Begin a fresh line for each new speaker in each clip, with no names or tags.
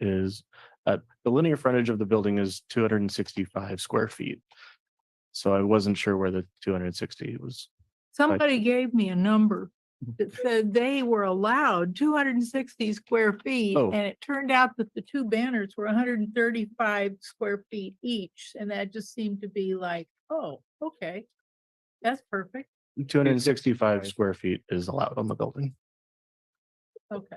is, uh, the linear frontage of the building is two hundred and sixty-five square feet. So I wasn't sure where the two hundred and sixty was.
Somebody gave me a number that said they were allowed two hundred and sixty square feet.
Oh.
And it turned out that the two banners were hundred and thirty-five square feet each, and that just seemed to be like, oh, okay. That's perfect,
Two hundred and sixty-five square feet is allowed on the building.
okay.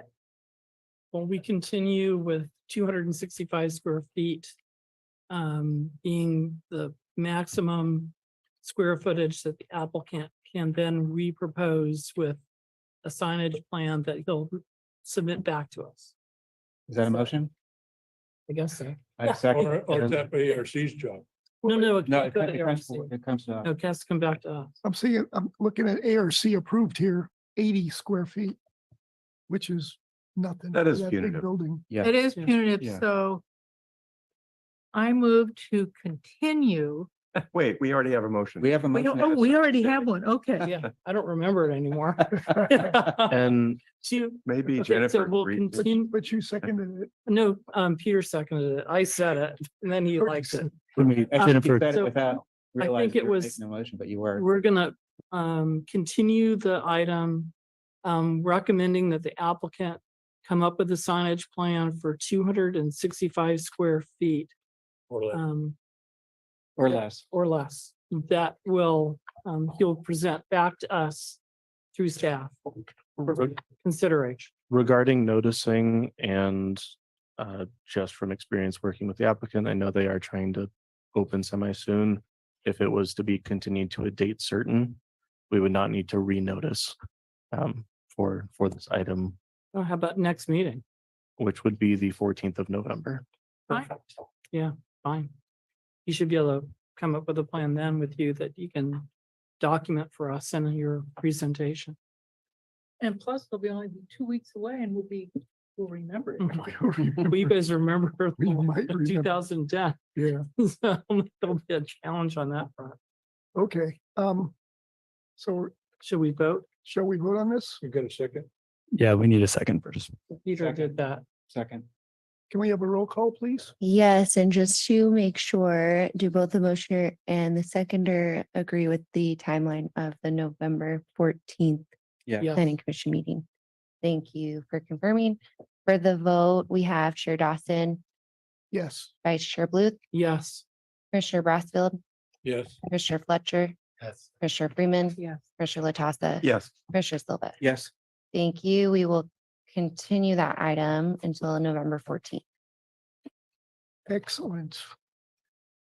Well, we continue with two hundred and sixty-five square feet um, being the maximum square footage that the applicant can then repropose with a signage plan that he'll submit back to us.
Is that a motion?
I guess so.
I second.
Or, or
it.
that ARC's job.
No, no. it
No,
can't
it
go
comes,
to
it comes, it comes
ARC.
uh, to,
No, it has to come back to us.
I'm seeing, I'm looking at ARC approved here, eighty square feet, which is nothing.
That
for
is
big
punitive.
Building.
yeah,
It is
Yeah.
punitive,
Yeah.
so I move to continue.
Wait, we already have a motion.
we have a
We
motion.
don't, oh, we already have one, okay.
Yeah, I don't remember it anymore.
And
Two.
Maybe
Okay, so
Jennifer.
we'll
agreed.
continue.
But you seconded it.
No, um, Peter seconded it. I said it and then he likes it.
when we-
I think
Jennifer,
you said it
So,
without realizing
it
you were
was-
making a motion, but you were.
We're gonna um continue the item. Um, recommending that the applicant come up with a signage plan for two hundred and sixty-five square feet
or let-
um
Or less.
or less. That will, um, he'll present back to us through staff
Uh,
re-
consideration.
regarding noticing and uh, just from experience working with the applicant, I know they are trying to open semi-soon. If it was to be continued to a date certain, we would not need to renotice um, for, for this item,
Oh, How about next meeting?
which would be the fourteenth of November.
Fine. Yeah, fine. You should be able to come up with a plan then with you that you can document for us in your presentation.
And plus, they'll be only be two weeks away and we'll be, we'll remember it.
Well, you guys remember
We might
two
remember.
thousand ten.
Yeah,
So There'll be a challenge on that front.
okay. Um, so
Should we vote?
shall we vote on this?
you got a second?
Yeah, we need a second first.
Peter did
Second.
that.
Second.
Can we have a roll call, please?
Yes, and just to make sure, do both the motioner and the seconder agree with the timeline of the November fourteenth
Yeah.
Yes.
planning commission meeting? Thank you for confirming. For the vote, we have Chair Dawson,
Yes.
Vice Chair Bluth,
Yes.
Commissioner Brassfield,
Yes.
Commissioner Fletcher,
Yes.
Commissioner Freeman,
Yes.
Commissioner Latassa.
Yes,
Commissioner Silva.
Yes.
Thank you. We will continue that item until November fourteenth.
Excellent.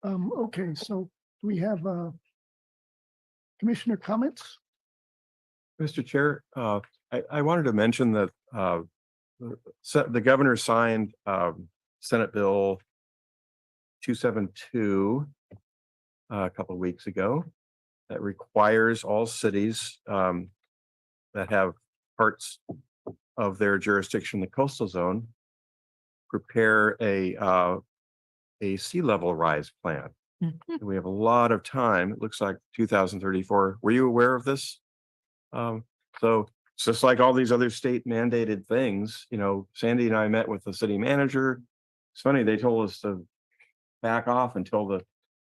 Um, okay, so do we have, uh, commissioner comments?
Mr. Chair, uh, I, I wanted to mention that, uh, the- so the governor signed, um, Senate Bill two seven two uh, a couple of weeks ago that requires all cities, um, that have parts of their jurisdiction, in the coastal zone, prepare a, uh, a sea level rise plan.
Mhm.
We have a lot of time. It looks like two thousand thirty-four. Were you aware of this? Um, so it's just like all these other state mandated things, you know, Sandy and I met with the city manager. It's funny, they told us to back off until the,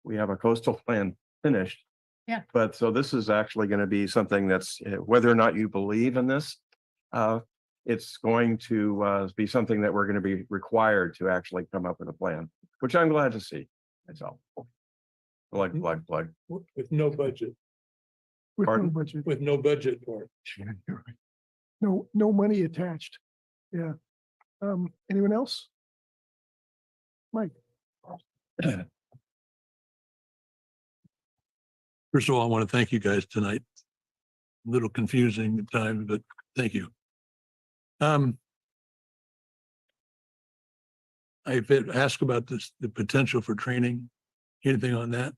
we have a coastal plan finished.
Yeah.
But so this is actually going to be something that's, uh, whether or not you believe in this, uh, it's going to, uh, be something that we're going to be required to actually come up with a plan, which I'm glad to see. That's all. Plug, plug, plug.
W- With no budget,
With no
Pardon?
budget,
with no budget for it.
no, no money attached. Yeah. Um, anyone else?
First of all, I want to thank you guys tonight. Little confusing at times, but thank you. Um. I've been asked about this, the potential for training. Anything on that?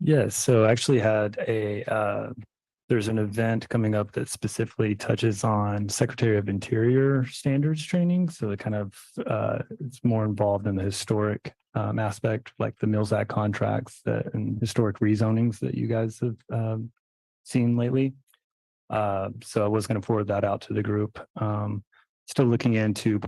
Yes, so I actually had a uh, there's an event coming up that specifically touches on Secretary of Interior standards training. So it kind of uh, it's more involved in the historic um, aspect, like the Mills Act contracts that, and historic rezonings that you guys have um, seen lately. Uh, so I was going to forward that out to the group. Um, still looking into